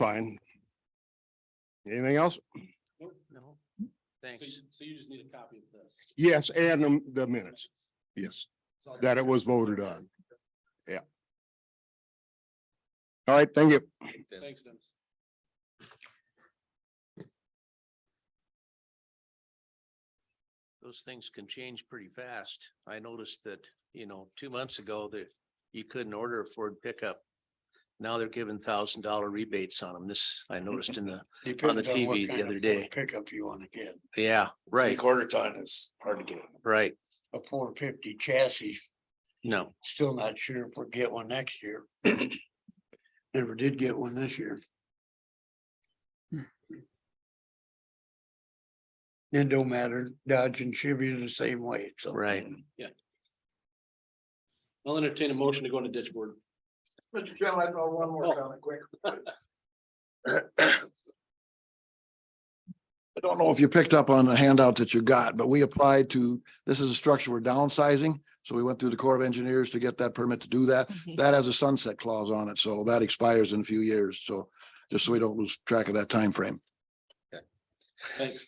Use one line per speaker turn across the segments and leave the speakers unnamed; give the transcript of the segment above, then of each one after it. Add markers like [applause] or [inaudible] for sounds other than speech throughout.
fine. Anything else?
No.
So you,
Thanks.
so you just need a copy of this.
Yes, and the- the minutes, yes, that it was voted on. Yeah. All right, thank you.
Thanks, Dennis.
Those things can change pretty fast. I noticed that, you know, two months ago that you couldn't order a Ford pickup. Now they're giving thousand dollar rebates on them. This I noticed in [laughs] the,
Depends
the
what
TV the
kind of
other
Ford
day.
Pickup you wanna get.
yeah,
Three
right,
quarter ton is hard to get.
right.
A four fifty chassis,
No,
still not sure if we'll get one next year. [clears throat] Never did get one this year. It don't matter. Dodge and Chevy are the same way, so.
right.
I'll entertain a motion to go into ditch board.
Mr. Chairman, I thought one
more
comment quick.
I don't know if you picked up on the handout that you got, but we applied to, this is a structure we're downsizing. So we went through the Corps of Engineers to get that permit to do that. That has a sunset clause on it, so that expires in a few years. So just so we don't lose track of that time frame.
Thanks.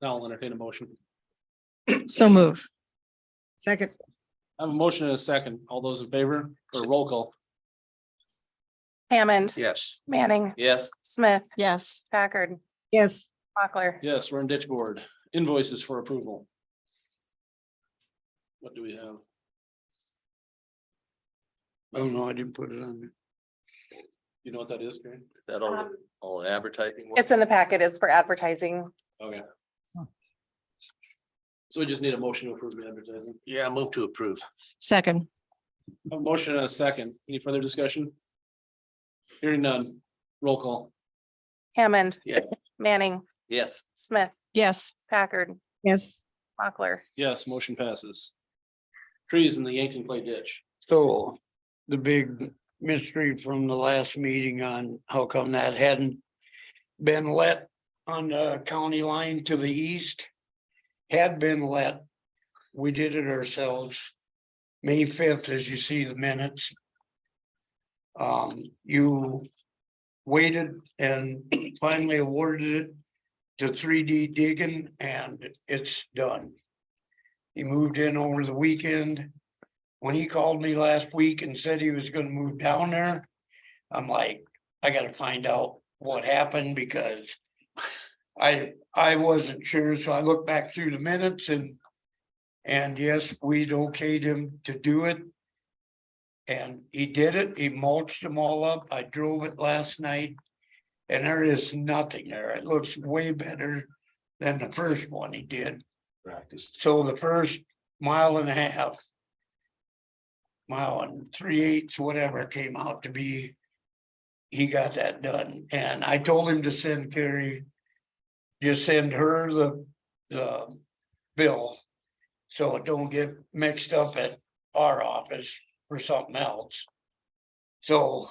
Now I'll entertain a motion.
So move. Second.
I have a motion and a second. All those in favor or roll call?
Hammond,
Yes,
Manning,
Yes.
Smith,
Yes.
Packard,
Yes.
Mochler.
Yes, we're in ditch board. Invoices for approval. What do we have?
Oh, no, I didn't put it on there.
You know what that is, Karen?
that all,
Um,
all advertising.
It's in the packet. It's for advertising.
Okay. So we just need a motion to approve the advertising.
Yeah, move to approve.
Second.
I have A motion and a second. Any further discussion? Hearing none. Roll call.
Hammond.
Yeah.
Manning,
Yes.
Smith,
Yes.
Packard,
Yes.
Mochler.
Yes, motion passes. Trees in the Yankton Clay Ditch.
So the big mystery from the last meeting on how come that hadn't been let on the county line to the east had been let. We did it ourselves. May fifth, as you see the minutes. Um, you waited and [clears throat] finally awarded it to three D digging and it's done. He moved in over the weekend when he called me last week and said he was gonna move down there, I'm like, I gotta find out what happened because I, I wasn't sure, so I looked back through the minutes and and yes, we'd okayed him to do it. And he did it, he mulched them all up. I drove it last night and there is nothing there. It looks way better than the first one he did.
Practice.
So the first mile and a half mile and three eighths, whatever it came out to be. He got that done and I told him to send Carrie. Just send her the, the bill. So it don't get mixed up at our office for something else. So.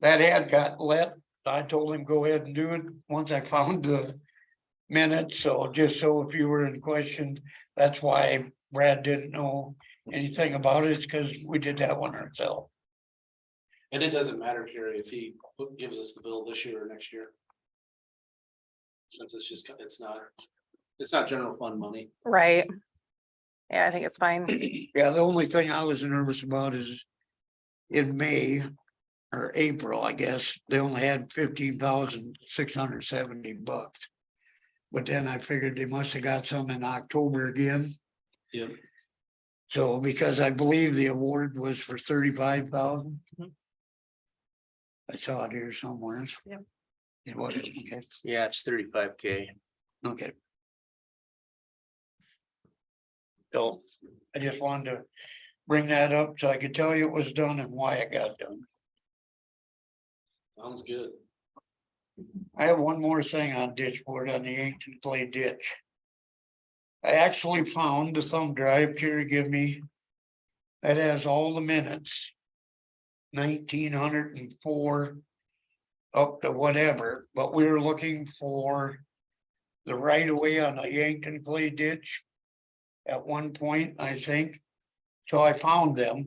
That had got let. I told him go ahead and do it once I [laughs] found the minutes. So just so if you were in question, that's why Brad didn't know anything about it, because we did that one ourselves. [clears throat]
And it doesn't matter, Carrie, if he gives us the bill this year or next year. Since it's just, it's not, it's not general fund money.
Right. Yeah, I think it's fine.
Yeah, the only thing I was nervous about is in May or April, I guess, they only had fifteen thousand six hundred seventy bucks. But then I figured they must have got some in October again.
Yep.
So because I believe the award was for thirty-five thousand. I saw it here somewhere.
Yep.
It was, okay,
Yeah, it's thirty-five K.
okay. So I just wanted to bring that up so I could tell you it was done and why it got done.
Sounds good.
I have one more thing on ditch board on the ancient clay ditch. I actually found the thumb drive Kerry give me. That has all the minutes. Nineteen hundred and four. Up to whatever, but we were looking for. The right of way on the Yankton clay ditch. At one point, I think. So I found them.